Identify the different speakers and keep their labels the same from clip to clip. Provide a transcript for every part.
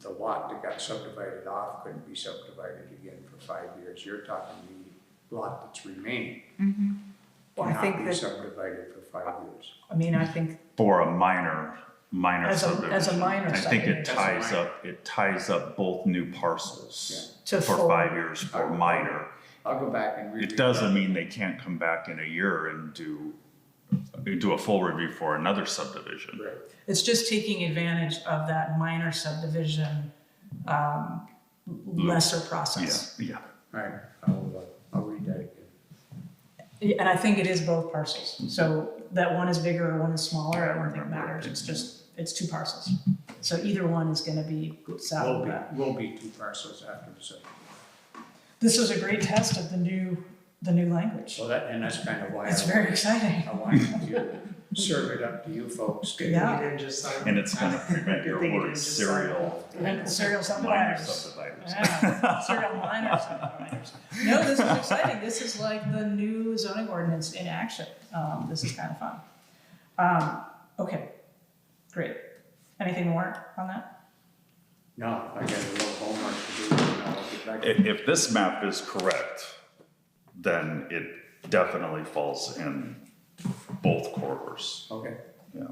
Speaker 1: the lot that got subdivided off couldn't be subdivided again for five years. You're talking the lot that's remaining
Speaker 2: Well, I
Speaker 1: cannot
Speaker 2: think
Speaker 1: be
Speaker 2: that,
Speaker 1: subdivided for five years.
Speaker 2: I mean, I think,
Speaker 3: for a minor, minor
Speaker 2: As a- as a
Speaker 3: subdivision.
Speaker 2: minor
Speaker 3: I think
Speaker 2: subdivision.
Speaker 3: it
Speaker 2: As a
Speaker 3: ties up, it ties up both new parcels
Speaker 2: Yeah. To
Speaker 3: for
Speaker 2: full-
Speaker 3: five years for minor.
Speaker 1: I'll go back and reread.
Speaker 3: It doesn't mean they can't come back in a year and do, do a full review for another subdivision.
Speaker 1: Right.
Speaker 2: it's just taking advantage of that minor subdivision, um, lesser
Speaker 3: Yeah,
Speaker 2: process.
Speaker 3: yeah.
Speaker 1: All right, I'll, uh, I'll read that again.
Speaker 2: Yeah, And I think it is both parcels,
Speaker 1: Mm-hmm.
Speaker 2: so that one is bigger or one is smaller, I don't think
Speaker 3: remember it
Speaker 2: matters,
Speaker 3: being-
Speaker 2: it's just, it's two parcels. So either one is gonna be
Speaker 1: Will
Speaker 2: saddled
Speaker 1: be,
Speaker 2: back.
Speaker 1: will be two parcels after the subdivision.
Speaker 2: This is a great test of the new, the new language,
Speaker 1: So that, and that's kind of why
Speaker 2: it's
Speaker 1: I,
Speaker 2: very exciting.
Speaker 1: I wanted to serve it up to you folks. to-
Speaker 2: Yeah.
Speaker 4: And just sign.
Speaker 3: And it's gonna prevent your
Speaker 4: They
Speaker 3: word
Speaker 4: just
Speaker 3: serial
Speaker 2: And serial
Speaker 3: minor
Speaker 2: subdividers.
Speaker 3: subdividers.
Speaker 2: Yeah, serial miners, not miners. No, this is exciting. This is like the new zoning ordinance in action. Um, this is kind of fun. Um, okay, great. Anything more on that?
Speaker 1: No, I got a little homework to do, and I'll get back.
Speaker 3: If, if this map is correct, then it definitely falls in both corridors.
Speaker 1: Okay,
Speaker 3: Yeah,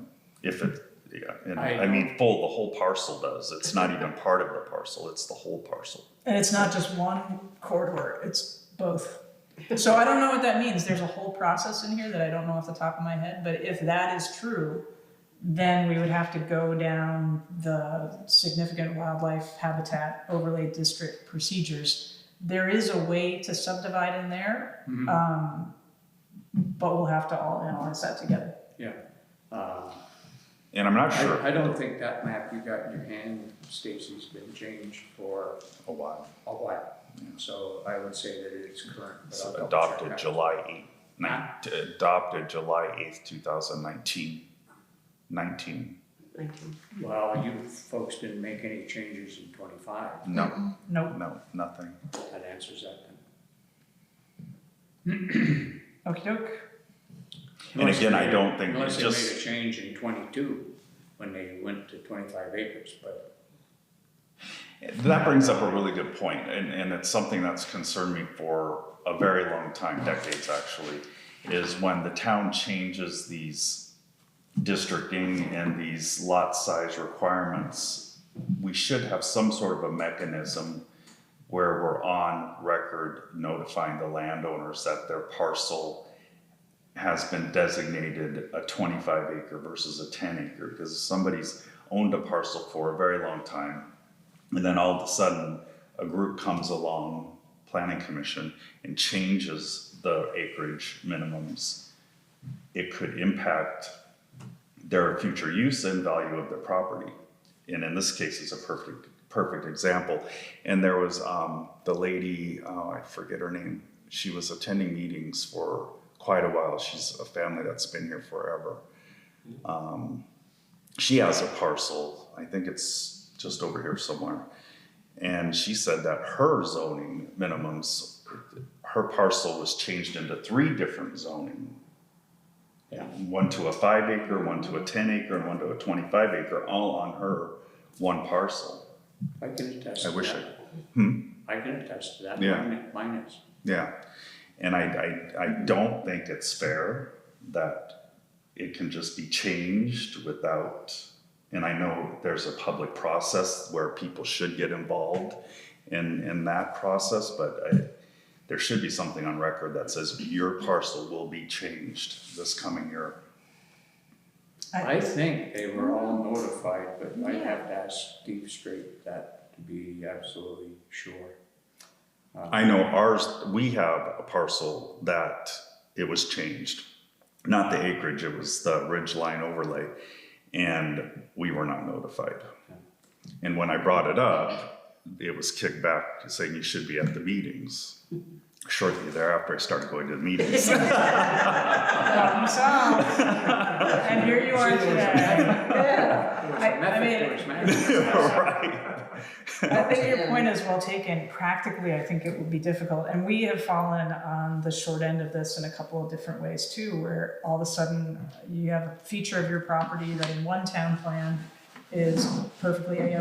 Speaker 3: if it, yeah, and
Speaker 1: I-
Speaker 3: I mean, full, the whole parcel does, it's not even part of the parcel, it's the whole parcel.
Speaker 2: And it's not just one corridor, it's both. So I don't know what that means. There's a whole process in here that I don't know off the top of my head, but if that is true, then we would have to go down the significant wildlife habitat overlay district procedures. There is a way to subdivide in there,
Speaker 1: Mm-hmm.
Speaker 2: um, but we'll have to all analyze that together.
Speaker 1: yeah. Uh,
Speaker 3: And I'm not sure.
Speaker 1: I, I don't think that map you got in your hand, Stacy's been changed for
Speaker 3: A while.
Speaker 1: a while. So I would say that it's current, but I'll double check
Speaker 3: Adopted
Speaker 1: that.
Speaker 3: July eighth, nine, adopted July eighth, two thousand nineteen, nineteen,
Speaker 1: Well, you folks didn't make any changes in twenty-five,
Speaker 3: no,
Speaker 2: Nope.
Speaker 3: no, nothing.
Speaker 1: that answers that then.
Speaker 2: Okey doke.
Speaker 3: And again, I don't think,
Speaker 1: Unless they made a
Speaker 3: just,
Speaker 1: change in twenty-two, when they went to twenty-five acres, but
Speaker 3: that brings up a really good point, and, and it's something that's concerned me for a very long time, decades actually, is when the town changes these districting and these lot size requirements, we should have some sort of a mechanism where we're on record notifying the landowners that their parcel has been designated a twenty-five acre versus a ten acre, because if somebody's owned a parcel for a very long time, and then all of a sudden, a group comes along, planning commission, and changes the acreage minimums, it could impact their future use and value of their property. And in this case, it's a perfect, perfect example. And there was um, the lady, uh, I forget her name, she was attending meetings for quite a while. She's a family that's been here forever. Um, she has a parcel, I think it's just over here somewhere. And she said that her zoning minimums, her parcel was changed into three different zoning
Speaker 1: Yeah.
Speaker 3: one to a five acre, one to a ten acre, and one to a twenty-five acre, all on her one parcel.
Speaker 1: I can attest to
Speaker 3: I wish I- Hmm?
Speaker 1: that. I can attest to that,
Speaker 3: Yeah.
Speaker 1: mine, mine is.
Speaker 3: Yeah, and I, I, I don't think it's fair that it can just be changed without, and I know there's a public process where people should get involved in, in that process, but I, there should be something on record that says your parcel will be changed this coming year.
Speaker 1: I think they were all notified, but I have to ask Steve Straight that to be absolutely sure.
Speaker 3: I know ours, we have a parcel that it was changed, not the acreage, it was the ridge line overlay, and we were not notified. And when I brought it up, it was kicked back saying you should be at the meetings. Shortly thereafter, I started going to the meetings.
Speaker 2: Problem solved. And here you are today. Yeah. I- I mean-
Speaker 1: Method to his madness.
Speaker 3: Right.
Speaker 2: I think your point is well taken. Practically, I think it would be difficult. And we have fallen on the short end of this in a couple of different ways too, where all of a uh, sudden you have a feature of your property that in one town plan is perfectly